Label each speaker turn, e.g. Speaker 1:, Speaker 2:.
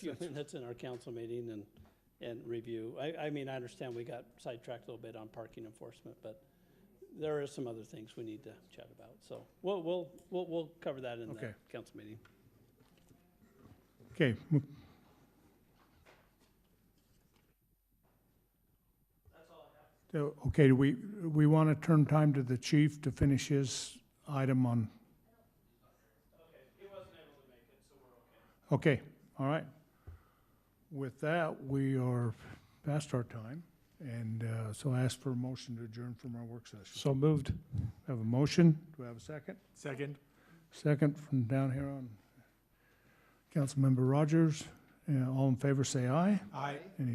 Speaker 1: That's in our council meeting and, and review. I, I mean, I understand we got sidetracked a little bit on parking enforcement, but there are some other things we need to chat about. So we'll, we'll, we'll, we'll cover that in the
Speaker 2: Okay.
Speaker 1: council meeting.
Speaker 2: Okay, mo- So, okay, do we, we want to turn time to the chief to finish his item on? Okay, all right. With that, we are past our time, and uh, so I ask for a motion to adjourn from our work session.
Speaker 3: So moved.
Speaker 2: Have a motion, do I have a second?
Speaker 3: Second.
Speaker 2: Second from down here on Councilmember Rogers. Uh, All in favor, say aye.
Speaker 3: Aye.